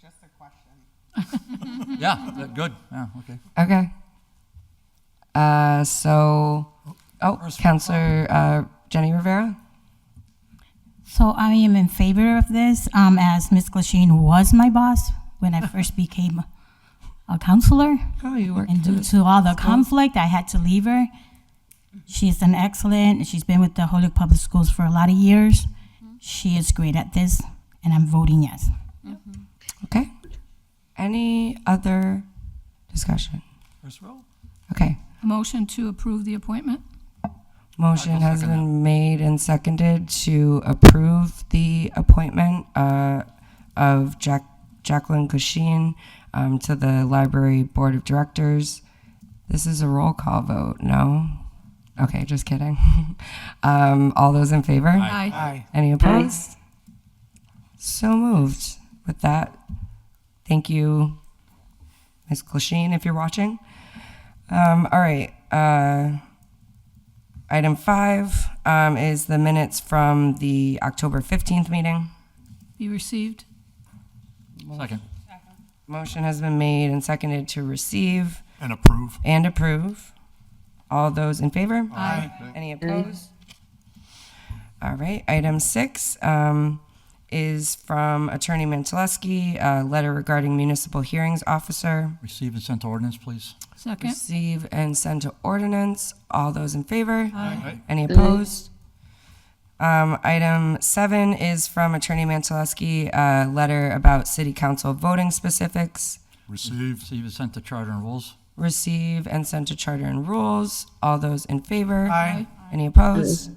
just a question. Yeah, that- good, yeah, okay. Okay. Uh, so, oh, First- Counselor uh, Jenny Rivera? So I am in favor of this, um, as Ms. Glasheen was my boss when I first became a counselor. Oh, you worked And due to all the conflict, I had to leave her. She's an excellent, she's been with the Holyoke Public Schools for a lot of years. Mm-hmm. She is great at this, and I'm voting yes. Okay. Any other discussion? First row? Okay. A motion to approve the appointment? Motion I'll has second been made and seconded to approve the appointment uh, of Jack Jacqueline Kushin um, to the Library Board of Directors. This is a roll call vote, no? Okay, just kidding. Um, All those in favor? Aye. Any opposed? So moved. With that, thank you, Ms. Glasheen, if you're watching. Um, all right. Uh, item five um, is the minutes from the October 15th meeting. Be received? Second. Motion has been made and seconded to receive and approve. and approve. All those in favor? Aye. Any opposed? All right, item six um, is from Attorney Mantaleski, a letter regarding municipal hearings officer. Receive and send to ordinance, please. Second? Receive and send to ordinance. All those in favor? Aye. Any opposed? Um, Item seven is from Attorney Mantaleski, a letter about city council voting specifics. Received, Receive and send to charter and rules. Receive and send to charter and rules. All those in favor? Aye. Any opposed?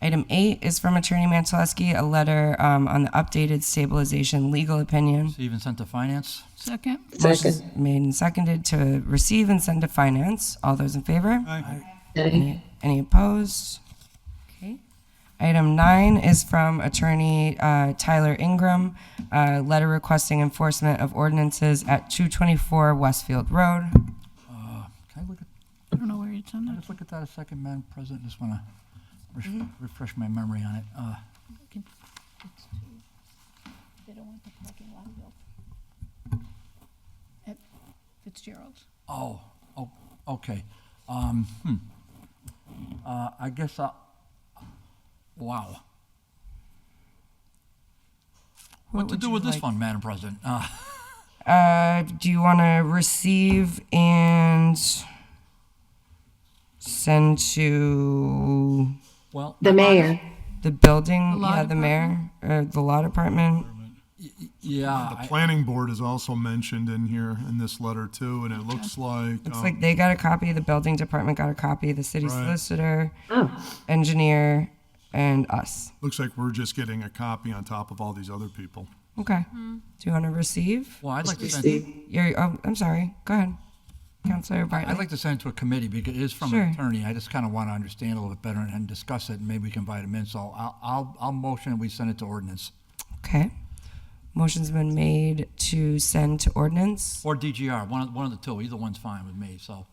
Item eight is from Attorney Mantaleski, a letter um, on the updated stabilization legal opinion. Receive and send to finance. Second? Motion's Made and seconded to receive and send to finance. All those in favor? Any any opposed? Okay. Item nine is from Attorney uh, Tyler Ingram, a letter requesting enforcement of ordinances at 224 Westfield Road. Can I look at, I don't know where it's on can I that. just look at that a second, Madam President? Just want to Mm-hmm. refresh my memory on it. Uh, They don't want the parking lot built. At Fitzgerald's. Oh, oh, okay. Um, hmm. Uh, I guess I, wow. What to would do you with this like? one, Madam President? Uh, Uh, do you want to receive and send to well, The mayor. the building? law yeah, the mayor, or the law department. yeah, the I- planning board is also mentioned in here in this letter too, and it looks like, It's um, like they got a copy. The building department got a copy. The city Right. solicitor, engineer, and us. looks like we're just getting a copy on top of all these other people. Okay. Do you want to receive? well, I'd like to send, Your. Oh, I'm sorry. Go ahead, Councilor Bartley. I'd like to send it to a committee because it is from Sure. an attorney. I just kind of want to understand a little bit better and, and discuss it, and maybe we can invite him in. So I'll, I'll, I'll motion we send it to ordinance okay. Motion's been made to send to ordinance. or DGR, one of, one of the two. Either one's fine with me. So,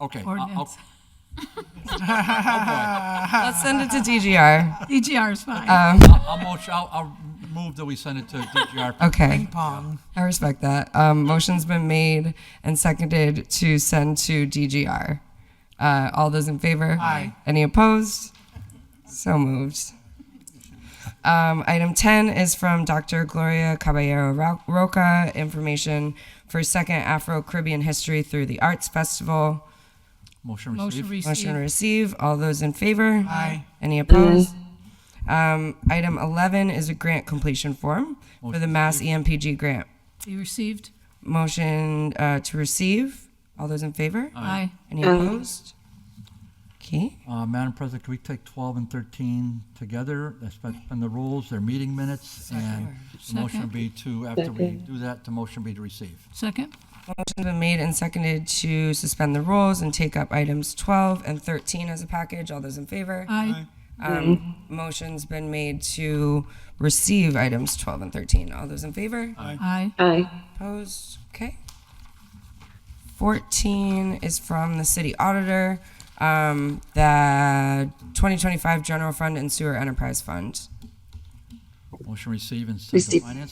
okay. I'll- I'll- Ordinance. Let's send it to DGR. DGR is fine. I'll, I'll motion, I'll, I'll move that we send it to DGR. Okay. I respect that. Um, motion's been made and seconded to send to DGR. Uh, all those in favor? Aye. Any opposed? So moved. Um, item 10 is from Dr. Gloria Caballero Ro- Roca, information for second Afro Caribbean history through the Arts Festival. Motion Motion received. Motion to received. receive. All those in favor? Aye. Any opposed? Um, item 11 is a grant completion form for the Mass E EMPG grant. Be received? Motion uh, to receive. All those in favor? Aye. Any opposed? Okay. Uh, Madam President, can we take 12 and 13 together? That's been been the rules, their meeting minutes, and the motion would be to, after we do that, the motion be to receive. Second? Motion's been made and seconded to suspend the rules and take up items 12 and 13 as a package. All those in favor? Aye. Um, motion's been made to receive items 12 and 13. All those in favor? Aye. Aye. Opposed? Okay. 14 is from the city auditor, um, the 2025 general fund and sewer enterprise fund. Motion receive and send to Receive. finance.